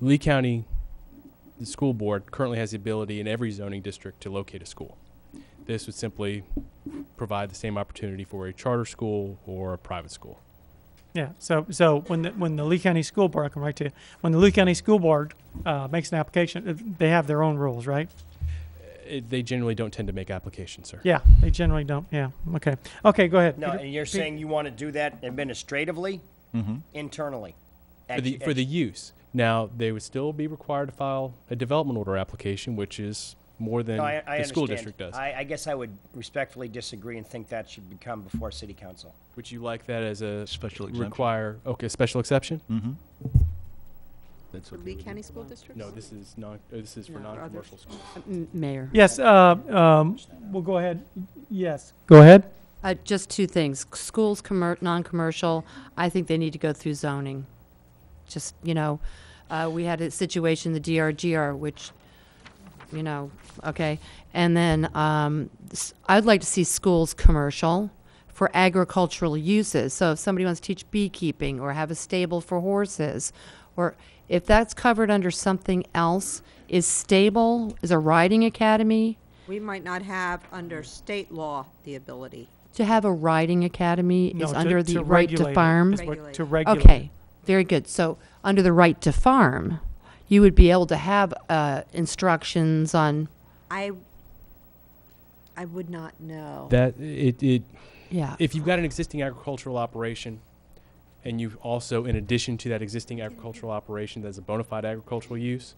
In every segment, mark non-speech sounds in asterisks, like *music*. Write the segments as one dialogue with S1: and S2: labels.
S1: Lee County, the school board currently has the ability in every zoning district to locate a school. This would simply provide the same opportunity for a charter school or a private school.
S2: Yeah, so, so when the, when the Lee County School Board, I can write to you, when the Lee County School Board, uh, makes an application, uh, they have their own rules, right?
S1: It, Eh, they generally don't tend to make applications, sir.
S2: Yeah, they generally don't, yeah, okay. Okay, go ahead.
S3: No,
S2: Peter.
S3: and you're saying you want to do that administratively, internally?
S1: Mm-hmm. For the,
S3: Ex-
S1: for the use. Now, they would still be required to file a development order application, which is more than
S3: No, I- I
S1: the school
S3: understand.
S1: district does.
S3: I, I guess I would respectfully disagree and think that should become before city council.
S1: Would you like that as a
S4: Special exemption.
S1: require, okay, special exception?
S4: That's
S5: For Lee County School District?
S1: No, this is non, uh, this is for
S5: No, other-
S1: non-commercial schools.
S5: Uh, M- Mayor?
S2: Yes, uh, um, we'll go ahead, yes. Go ahead.
S5: Uh, just two things. Schools, commer- non-commercial, I think they need to go through zoning. Just, you know, uh, we had a situation, the DRGR, which, you know, okay. And then, um, s- I'd like to see schools commercial for agricultural uses. So if somebody wants to teach beekeeping or have a stable for horses, or if that's covered under something else, is stable, is a riding academy?
S6: We might not have, under state law, the ability.
S5: To have a riding academy
S2: No,
S5: is
S2: to-
S5: under
S2: to
S5: the right
S2: regulate
S5: to
S2: it.
S5: farm?
S2: It's what- To
S6: Regulate.
S2: regulate.
S5: Okay, very good. So, under the right to farm, you would be able to have uh, instructions on,
S6: I, I would not know.
S1: That, it, it,
S5: yeah.
S1: if you've got an existing agricultural operation and you also, in addition to that existing agricultural operation that's a bona fide agricultural use,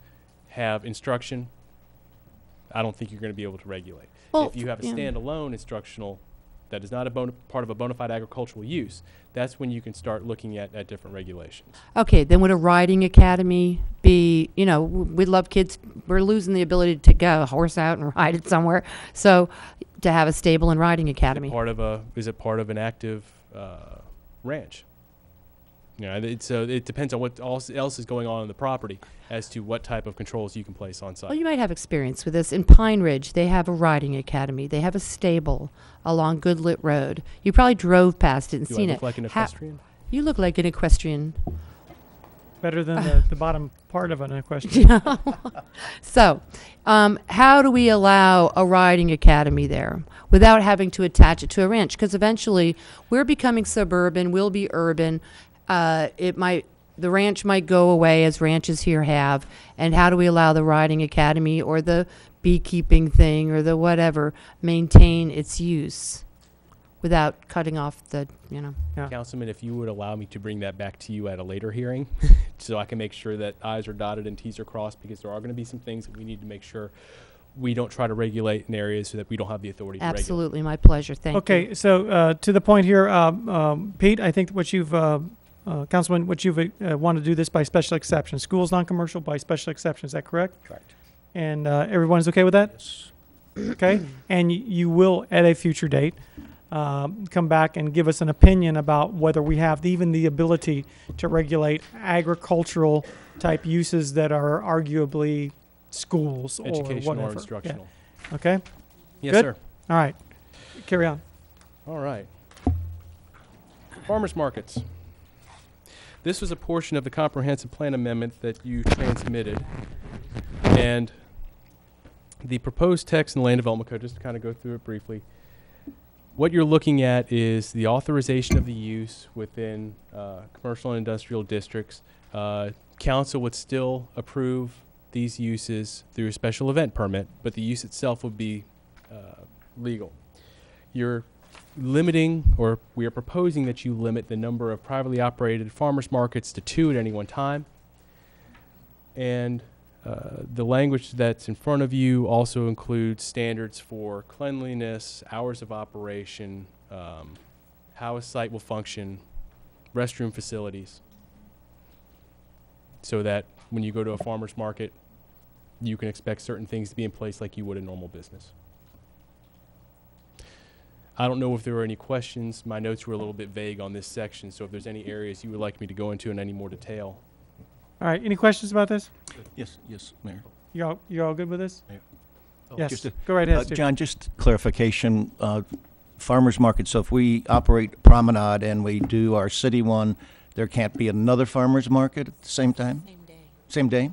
S1: have instruction, I don't think you're going to be able to regulate.
S5: Well,
S1: if you have a
S5: yeah.
S1: standalone instructional that is not a bona, part of a bona fide agricultural use, that's when you can start looking at, at different regulations.
S5: Okay, then would a riding academy be, you know, w- we love kids, we're losing the ability to go a horse out and *laughs* ride it somewhere. So, to have a stable and riding
S1: Is it
S5: academy.
S1: part of a is it part of an active uh, ranch? You know, it, so it depends on what else, else is going on in the property as to what type of controls you can place on site.
S5: Well, Oh, you might have experience with this. In Pine Ridge, they have a riding academy. They have a stable along Goodlit Road. You probably drove past it and
S1: Do I
S5: seen
S1: look
S5: it.
S1: like an
S5: Ha-
S1: equestrian?
S5: You look like an equestrian.
S2: Better than the, the bottom part of an
S5: *laughs*
S2: question.
S5: So, um, how do we allow a riding academy there without having to attach it to a ranch? Because eventually, we're becoming suburban. We'll be urban. Uh, it might the ranch might go away as ranches here have. And how do we allow the riding academy or the beekeeping thing or the whatever maintain its use without cutting off the you know?
S1: Councilman, if you would allow me to bring that back to you at a later hearing, *laughs* so I can make sure that i's are dotted and t's are crossed, because there are going to be some things that we need to make sure we don't try to regulate in areas so that we don't have the authority to regulate.
S5: Absolutely, my pleasure. Thank you.
S2: Okay, so uh, to the point here, um, um, Pete, I think what you've, uh, uh, Councilman, what you've uh, wanted to do this by special exception. Schools non-commercial by special exception, is that correct?
S3: Correct.
S2: And uh, everyone's okay with that? Okay, and y- you will, at a future date, um, come back and give us an opinion about whether we have even the ability to regulate agricultural-type uses that are arguably schools or whatever.
S1: Educational or
S2: Yeah,
S1: instructional.
S2: Okay,
S1: Yes,
S2: Good?
S1: sir.
S2: all right, carry on.
S1: All right. Farmers markets. This was a portion of the comprehensive plan amendment that you transmitted. And the proposed text in the land development code, just to kind of go through it briefly. What you're looking at is the authorization of the use within uh, commercial and industrial districts. Uh, Council would still approve these uses through a special event permit, but the use itself would be uh, legal. You're limiting, or we are proposing that you limit the number of privately operated farmers markets to two at any one time. And uh, the language that's in front of you also includes standards for cleanliness, hours of operation, um, how a site will function, restroom facilities, so that when you go to a farmer's market, you can expect certain things to be in place like you would a normal business. I don't know if there were any questions. My notes were a little bit vague on this section, so if there's any areas you would like me to go into in any more detail,
S2: All right, any questions about this?
S4: Yes, yes, Mayor.
S2: You all, you all good with this?
S4: Yeah.
S2: Yes,
S4: Just a-
S2: go right
S4: Uh,
S2: ahead, Steve.
S4: John, just clarification, uh, farmer's market, so if we operate Promenade and we do our city one, there can't be another farmer's market at the same time? Same day?